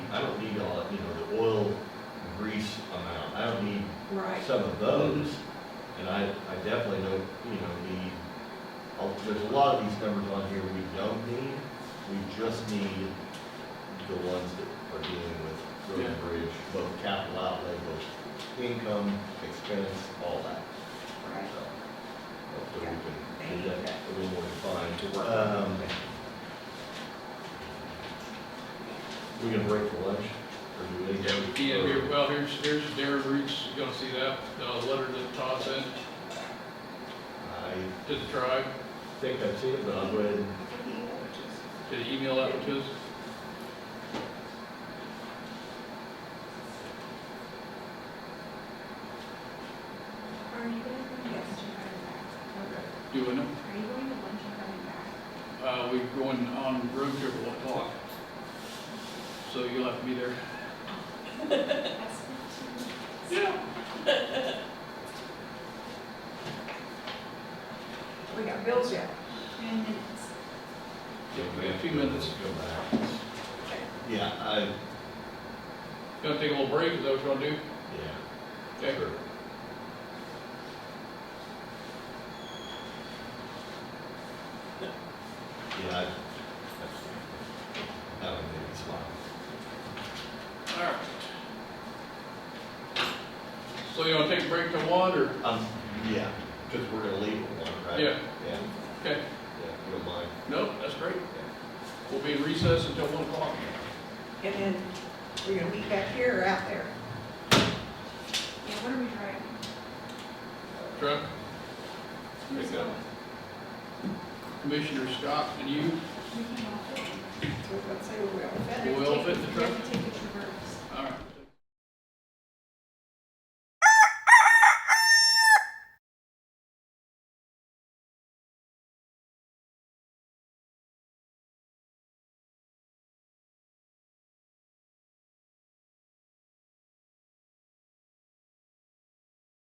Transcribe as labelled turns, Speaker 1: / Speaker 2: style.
Speaker 1: I don't need all, that, you know, the oil grease amount, I don't need
Speaker 2: Right, Mm-hmm.
Speaker 1: some of those. And I, I definitely don't, you know, need, oh, there's a lot of these numbers on here we don't need, we just need the ones that are dealing with road and bridge, both capital outlay, both income, expense, all that.
Speaker 2: right.
Speaker 1: So, Hopefully we
Speaker 2: Yeah.
Speaker 1: can do that a little more defined to work.
Speaker 3: Um,
Speaker 1: We're Um, gonna break for lunch, or do we?
Speaker 4: Yeah, here, well, here's, here's Darren Reed's gonna see that, uh, letter that Todd sent
Speaker 1: I
Speaker 4: to the tribe,
Speaker 1: think I've seen it, but I'll go ahead and
Speaker 4: did he email that one to us?
Speaker 2: Are you going to, yes, you're coming back.
Speaker 4: Doing it,
Speaker 2: Are you going to lunch and coming back?
Speaker 4: uh, we're going on road trip at one o'clock. So you'll have to be there.
Speaker 2: That's not too-
Speaker 4: Yeah.
Speaker 2: We got bills yet.
Speaker 5: Ten minutes.
Speaker 4: we got a few minutes.
Speaker 1: Go back. Yeah, I,
Speaker 4: Gonna take a little break, is that what you wanna do?
Speaker 1: yeah,
Speaker 4: Okay.
Speaker 1: sure. Yeah, I, that would make me smile.
Speaker 4: All right. So you wanna take a break till one, or,
Speaker 1: Um, yeah, because we're gonna leave it one, right?
Speaker 4: Yeah.
Speaker 1: Yeah,
Speaker 4: okay,
Speaker 1: yeah, if you don't mind.
Speaker 4: no, that's great. We'll be in recess until one o'clock.
Speaker 2: And then we're going to meet back here or out there?
Speaker 5: Yeah, what are we driving?
Speaker 4: Truck, There you go. Commissioner Scott and you,
Speaker 5: We can all fit.
Speaker 2: So let's say we're going to
Speaker 4: will fit the
Speaker 5: We
Speaker 4: truck.
Speaker 5: have to take